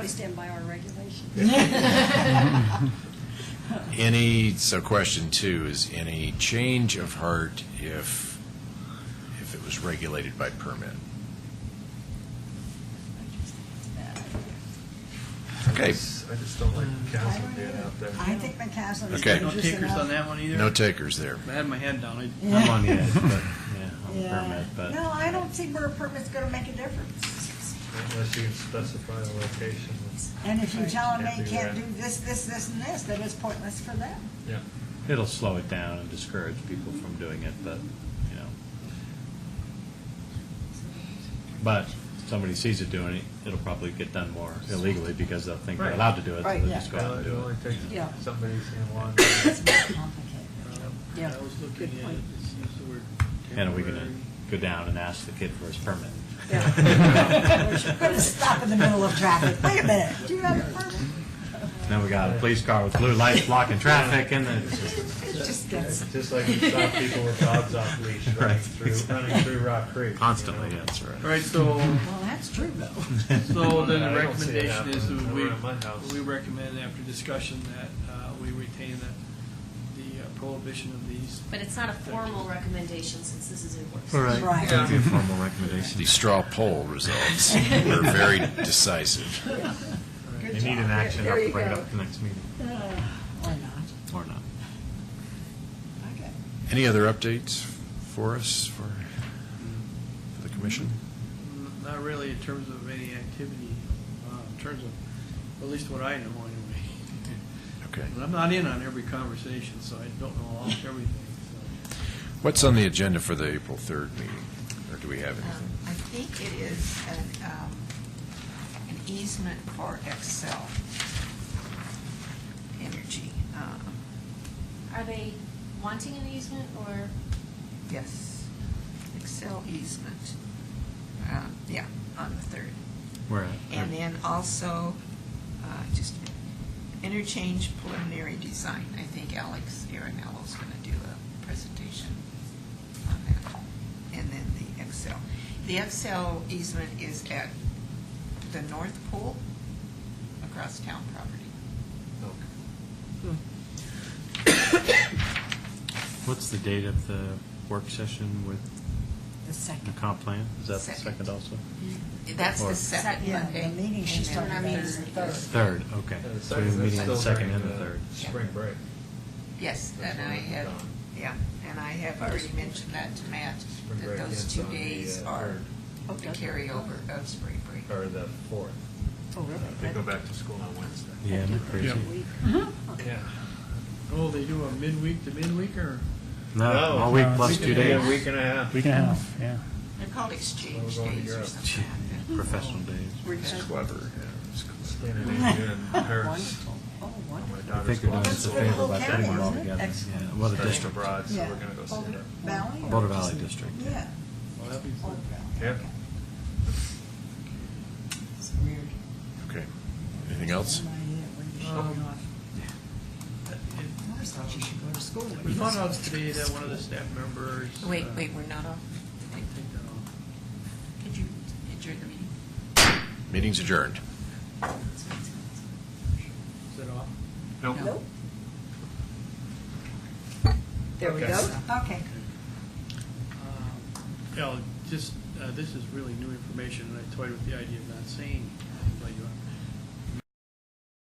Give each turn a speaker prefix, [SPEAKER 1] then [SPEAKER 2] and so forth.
[SPEAKER 1] We stand by our regulations.
[SPEAKER 2] Any, so question two is any change of heart if, if it was regulated by permit?
[SPEAKER 3] I
[SPEAKER 2] Okay,
[SPEAKER 3] just don't like Castle being out there.
[SPEAKER 1] I think McCaslin is
[SPEAKER 2] Okay.
[SPEAKER 4] No
[SPEAKER 1] dangerous
[SPEAKER 4] takers on
[SPEAKER 1] enough.
[SPEAKER 4] that one either?
[SPEAKER 2] no takers there.
[SPEAKER 4] I had my hand down. I-
[SPEAKER 5] I'm on the edge, but, yeah, I'm a
[SPEAKER 1] Yeah.
[SPEAKER 5] permit, but.
[SPEAKER 1] No, I don't see where a permit's gonna make a difference.
[SPEAKER 3] Unless you can specify a location.
[SPEAKER 1] And if you tell them
[SPEAKER 3] Can't
[SPEAKER 1] they
[SPEAKER 3] do
[SPEAKER 1] can't do
[SPEAKER 3] that.
[SPEAKER 1] this, this, this, and this, then it's pointless for them.
[SPEAKER 3] Yeah.
[SPEAKER 5] It'll slow it down and discourage people from doing it, but, you know. But somebody sees it doing it, it'll probably get done more illegally because they'll think they're
[SPEAKER 3] Right.
[SPEAKER 5] allowed to do it, so
[SPEAKER 1] Right,
[SPEAKER 5] they'll
[SPEAKER 1] yeah.
[SPEAKER 5] just go out and
[SPEAKER 3] It
[SPEAKER 5] do
[SPEAKER 3] only
[SPEAKER 5] it.
[SPEAKER 3] takes
[SPEAKER 1] Yeah.
[SPEAKER 3] somebody seeing one.
[SPEAKER 1] It's more complicated. Yeah,
[SPEAKER 4] I was
[SPEAKER 1] good
[SPEAKER 4] looking at it,
[SPEAKER 1] point.
[SPEAKER 4] it seems the word
[SPEAKER 5] And are we gonna
[SPEAKER 4] temporary.
[SPEAKER 5] go down and ask the kid for his permit?
[SPEAKER 1] Yeah. We're gonna stop in the middle of traffic. Wait a minute, do you have a permit?
[SPEAKER 5] Now we got a police car with blue lights blocking traffic and the,
[SPEAKER 1] It just gets,
[SPEAKER 3] Just like you stop people with dogs off leash running
[SPEAKER 5] Right,
[SPEAKER 3] through,
[SPEAKER 5] exactly.
[SPEAKER 3] running through Rock Creek. you
[SPEAKER 5] constantly,
[SPEAKER 3] know?
[SPEAKER 5] yeah, that's
[SPEAKER 4] All
[SPEAKER 5] right.
[SPEAKER 4] right, so,
[SPEAKER 1] well, that's true though.
[SPEAKER 4] so then
[SPEAKER 3] I
[SPEAKER 4] the
[SPEAKER 3] don't see it
[SPEAKER 4] recommendation is
[SPEAKER 3] happening
[SPEAKER 4] that
[SPEAKER 3] over at my house.
[SPEAKER 4] we, we recommend after discussion that uh, we retain the, the uh, prohibition of these.
[SPEAKER 6] But it's not a formal recommendation since this is enforcement.
[SPEAKER 5] All
[SPEAKER 1] Right.
[SPEAKER 5] It's gonna be a formal recommendation.
[SPEAKER 2] The straw poll results were very decisive.
[SPEAKER 5] They need an action, I'll bring it up at the next meeting,
[SPEAKER 1] Or Uh, not.
[SPEAKER 5] or not.
[SPEAKER 1] Okay.
[SPEAKER 2] Any other updates for us, for, for the commission?
[SPEAKER 4] N- Mm, Not really in terms of any activity, uh, in terms of, at least what I know anyway.
[SPEAKER 2] Okay.
[SPEAKER 4] But I'm not in on every conversation, so I don't know all, everything, so.
[SPEAKER 2] What's on the agenda for the April 3rd meeting? Or do we have anything?
[SPEAKER 7] Um,
[SPEAKER 6] Um,
[SPEAKER 7] I think it is an, um, an easement for Excel Energy. Um,
[SPEAKER 6] Are they wanting an easement or,
[SPEAKER 7] Yes, Excel easement. Um, Yeah, on the third.
[SPEAKER 5] Where at?
[SPEAKER 7] And then also, uh, just interchange preliminary design. I think Alex Aaronello's going to do a presentation on that. And then the Excel. The Excel easement is at the North Pool, across town property.
[SPEAKER 5] What's the date of the work session with
[SPEAKER 1] The
[SPEAKER 5] the
[SPEAKER 1] second.
[SPEAKER 5] comp plan? Is that the
[SPEAKER 7] Second.
[SPEAKER 5] second also?
[SPEAKER 7] That's
[SPEAKER 5] Or-
[SPEAKER 7] the second
[SPEAKER 6] Second.
[SPEAKER 1] Yeah,
[SPEAKER 7] Monday.
[SPEAKER 1] the meeting she's
[SPEAKER 7] And
[SPEAKER 1] talking
[SPEAKER 7] then-
[SPEAKER 1] about is the third.
[SPEAKER 5] Third, okay.
[SPEAKER 3] And the
[SPEAKER 5] So we
[SPEAKER 3] second, that's
[SPEAKER 5] have a meeting on
[SPEAKER 3] Uh, still
[SPEAKER 5] the second
[SPEAKER 3] during
[SPEAKER 5] and the
[SPEAKER 3] the
[SPEAKER 5] third.
[SPEAKER 3] spring break.
[SPEAKER 7] Yes,
[SPEAKER 3] That's
[SPEAKER 7] and
[SPEAKER 3] when
[SPEAKER 7] I
[SPEAKER 3] it's
[SPEAKER 7] had,
[SPEAKER 3] done.
[SPEAKER 7] yeah, and I have already mentioned that to Matt,
[SPEAKER 3] Spring
[SPEAKER 7] that
[SPEAKER 3] break
[SPEAKER 7] those
[SPEAKER 3] ends
[SPEAKER 7] two
[SPEAKER 3] on the,
[SPEAKER 7] days
[SPEAKER 3] uh,
[SPEAKER 7] are the
[SPEAKER 1] Okay.
[SPEAKER 7] carryover of spring break.
[SPEAKER 3] Or the fourth.
[SPEAKER 1] Oh, really?
[SPEAKER 3] They go back to school on Wednesday.
[SPEAKER 5] Yeah, isn't it crazy?
[SPEAKER 4] Uh-huh.
[SPEAKER 3] Yeah.
[SPEAKER 4] Oh, they do a midweek to midweek, or?
[SPEAKER 5] No, all week plus
[SPEAKER 3] it's
[SPEAKER 5] two
[SPEAKER 3] gonna be a
[SPEAKER 5] days.
[SPEAKER 3] Week and a half.
[SPEAKER 8] Week and a half, yeah.
[SPEAKER 7] They're called exchange
[SPEAKER 3] Well, we're going to
[SPEAKER 7] days or
[SPEAKER 3] Europe.
[SPEAKER 7] something like
[SPEAKER 5] Professional days.
[SPEAKER 2] It's clever. yeah, it's clever.
[SPEAKER 3] Scandinavia and Paris.
[SPEAKER 1] Wonderful. Oh,
[SPEAKER 3] My
[SPEAKER 1] wonderful.
[SPEAKER 5] I
[SPEAKER 3] daughter's
[SPEAKER 5] think they're doing
[SPEAKER 3] going
[SPEAKER 1] Well, that's
[SPEAKER 5] us a favor
[SPEAKER 1] Boulder
[SPEAKER 5] by putting
[SPEAKER 1] County,
[SPEAKER 5] it all
[SPEAKER 1] isn't it?
[SPEAKER 5] together.
[SPEAKER 1] Excellent.
[SPEAKER 5] Yeah, Well, the
[SPEAKER 3] Studying
[SPEAKER 5] district.
[SPEAKER 3] abroad, so
[SPEAKER 1] Yeah.
[SPEAKER 3] we're gonna go see
[SPEAKER 1] Boulder Valley?
[SPEAKER 3] it.
[SPEAKER 1] or
[SPEAKER 5] Boulder
[SPEAKER 1] just
[SPEAKER 5] Valley
[SPEAKER 1] the-
[SPEAKER 5] District.
[SPEAKER 1] Yeah.
[SPEAKER 4] Well, that'd be fun.
[SPEAKER 1] Boulder Valley.
[SPEAKER 3] Yeah.
[SPEAKER 1] Okay. It's weird.
[SPEAKER 2] Okay. Anything else?
[SPEAKER 1] Remind me that when you're
[SPEAKER 4] Um,
[SPEAKER 1] showing off.
[SPEAKER 4] Oh.
[SPEAKER 1] I always thought you should go to school.
[SPEAKER 4] We found out today that one of the staff members.
[SPEAKER 7] that. Wait,
[SPEAKER 4] uh,
[SPEAKER 7] wait, we're not off.
[SPEAKER 4] I think they're all-
[SPEAKER 7] Could you adjourn the meeting?
[SPEAKER 2] Meeting's adjourned.
[SPEAKER 4] Is that off?
[SPEAKER 1] Nope.
[SPEAKER 3] There we go.
[SPEAKER 1] Okay.
[SPEAKER 4] Um, Yeah, just, uh, this is really new information, and I toyed with the idea of not saying